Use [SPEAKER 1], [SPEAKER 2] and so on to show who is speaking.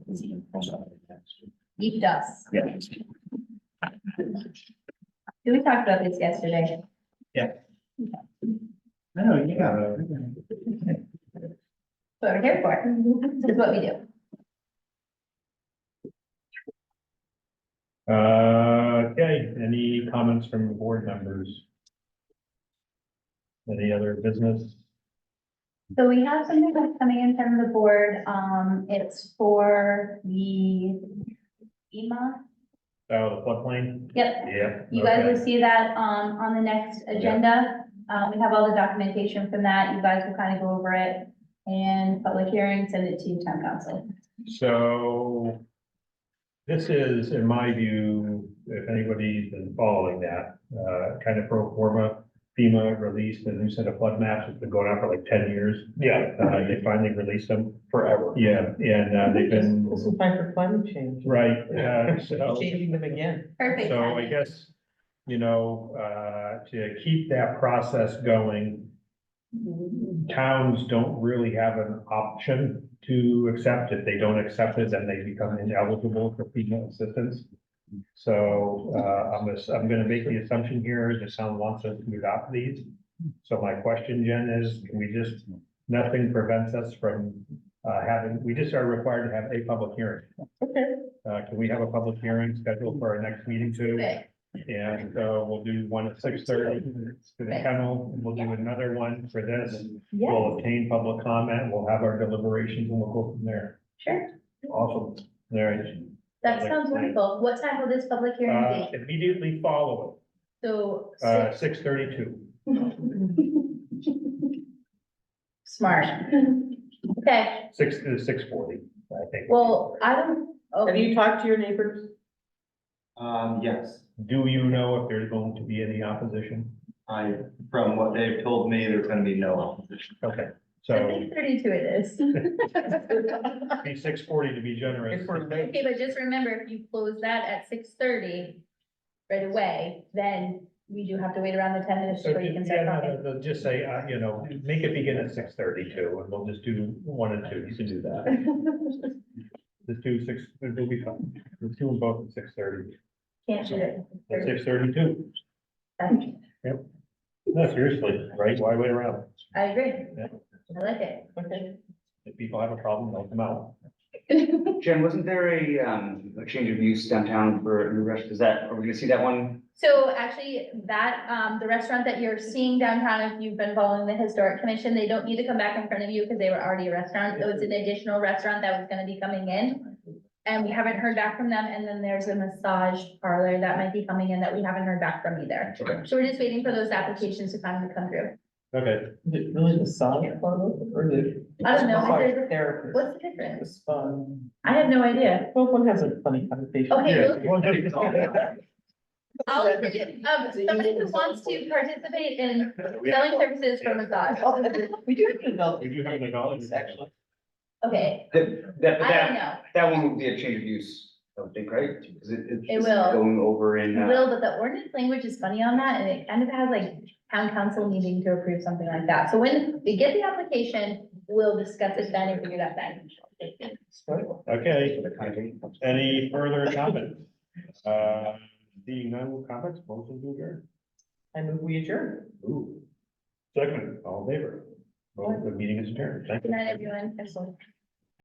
[SPEAKER 1] He does.
[SPEAKER 2] Yeah.
[SPEAKER 1] We talked about this yesterday.
[SPEAKER 2] No, yeah.
[SPEAKER 1] That's what we're here for. That's what we do.
[SPEAKER 2] Uh, okay, any comments from board members? Any other business?
[SPEAKER 1] So we have something that's coming in from the board. Um, it's for the EMA.
[SPEAKER 2] Oh, the floodplain?
[SPEAKER 1] Yep,
[SPEAKER 2] Yeah.
[SPEAKER 1] you guys
[SPEAKER 2] okay.
[SPEAKER 1] will see that, um, on the next agenda. Uh, we have all the documentation from that. You guys will kind of go over it and public hearing, send it to town council.
[SPEAKER 2] So this is, in my view, if anybody's been following that, uh, kind of pro forma. FEMA released a new set of flood maps. It's been going on for like ten years.
[SPEAKER 3] Yeah.
[SPEAKER 2] Uh, they finally released them.
[SPEAKER 3] Forever.
[SPEAKER 2] Yeah, and uh, they've been,
[SPEAKER 4] This is time for climate change,
[SPEAKER 2] right, uh, so.
[SPEAKER 4] changing them again.
[SPEAKER 1] Perfect.
[SPEAKER 2] So I
[SPEAKER 1] timing.
[SPEAKER 2] guess, you know, uh, to keep that process going. Towns don't really have an option to accept. If they don't accept it, then they become ineligible for FEMA assistance. So, uh, I'm, ass- I'm gonna make the assumption here that someone wants us to adopt these. So my question, Jen, is can we just, nothing prevents us from, uh, having, we just are required to have a public hearing.
[SPEAKER 4] Okay.
[SPEAKER 2] Uh, can we have a public hearing scheduled for our next meeting too?
[SPEAKER 1] Good.
[SPEAKER 2] And uh, we'll do one at six thirty to the kennel, and we'll do another one for this. We'll obtain public comment, we'll have our deliberations, and we'll go from there.
[SPEAKER 1] Sure.
[SPEAKER 2] Awesome. There it is.
[SPEAKER 1] That sounds wonderful. What time will this public
[SPEAKER 2] Uh,
[SPEAKER 1] hearing be?
[SPEAKER 2] immediately follow
[SPEAKER 1] So
[SPEAKER 2] it, uh,
[SPEAKER 1] six-
[SPEAKER 2] six thirty-two.
[SPEAKER 1] smart. Okay,
[SPEAKER 2] Six to six forty, I think.
[SPEAKER 1] well, I don't,
[SPEAKER 4] Have
[SPEAKER 1] oh,
[SPEAKER 4] you talked to your neighbors?
[SPEAKER 3] Um, yes,
[SPEAKER 2] Do you know if there's going to be any opposition?
[SPEAKER 3] I, from what they've told me, there's gonna be no opposition.
[SPEAKER 2] Okay,
[SPEAKER 1] I
[SPEAKER 2] so
[SPEAKER 1] think thirty-two it is. Okay,
[SPEAKER 2] be six forty to be generous.
[SPEAKER 4] If we're late,
[SPEAKER 1] but just remember, if you close that at six thirty right away, then we do have to wait around the ten minutes
[SPEAKER 2] So,
[SPEAKER 1] before you can
[SPEAKER 2] ju-
[SPEAKER 1] start
[SPEAKER 2] yeah,
[SPEAKER 1] talking.
[SPEAKER 2] no, no, no, just say, uh, you know, make it begin at six thirty-two, and we'll just do one and two, you can do that. Let's do six, it'll be fun. Let's do them both at six thirty,
[SPEAKER 1] Can't do it.
[SPEAKER 2] at six thirty-two.
[SPEAKER 1] Okay,
[SPEAKER 2] No, seriously, right? Why wait around?
[SPEAKER 1] I agree.
[SPEAKER 2] Yeah.
[SPEAKER 1] I like it.
[SPEAKER 4] okay.
[SPEAKER 2] If people have a problem, they'll come out.
[SPEAKER 3] Jen, wasn't there a, um, a change of use downtown for a new restaurant? Is that, are we gonna see that one?
[SPEAKER 1] So actually, that, um, the restaurant that you're seeing downtown, if you've been following the historic commission, they don't need to come back in front of you because they were already a restaurant. It was an additional restaurant that was gonna be coming in. And we haven't heard back from them. And then there's a massage parlor that might be coming in that we haven't heard back from either.
[SPEAKER 3] Okay.
[SPEAKER 1] So we're just waiting for those applications to finally come through.
[SPEAKER 2] Okay,
[SPEAKER 4] Is it really the sauna club or the?
[SPEAKER 1] I don't know. I said-
[SPEAKER 4] Therapist.
[SPEAKER 1] What's the difference?
[SPEAKER 4] It's fun.
[SPEAKER 1] I have no idea.
[SPEAKER 4] Well, one has a funny connotation.
[SPEAKER 1] Okay,
[SPEAKER 2] Yeah.
[SPEAKER 1] we'll- I'll, um, somebody who wants to participate in selling services for massage.
[SPEAKER 4] We do have an adult.
[SPEAKER 2] We do have an adult.
[SPEAKER 4] Actually.
[SPEAKER 1] Okay,
[SPEAKER 3] That, that,
[SPEAKER 1] I don't
[SPEAKER 3] that,
[SPEAKER 1] know.
[SPEAKER 3] that one would be a change of use, I would think, right? Because it, it's
[SPEAKER 1] It will.
[SPEAKER 3] Going over in,
[SPEAKER 1] You
[SPEAKER 3] uh,
[SPEAKER 1] will, but the ordinance language is funny on that, and it kind of has like town council needing to approve something like that. So when we get the application, we'll discuss it then and figure it out then.
[SPEAKER 2] okay,
[SPEAKER 3] the country.
[SPEAKER 2] any further comments? Uh, seeing no comments, motion to adjourn.
[SPEAKER 4] I move we adjourn.
[SPEAKER 2] Ooh. Second, all in favor. Well, the meeting is adjourned, thank you.
[SPEAKER 1] Good night, everyone. Excellent.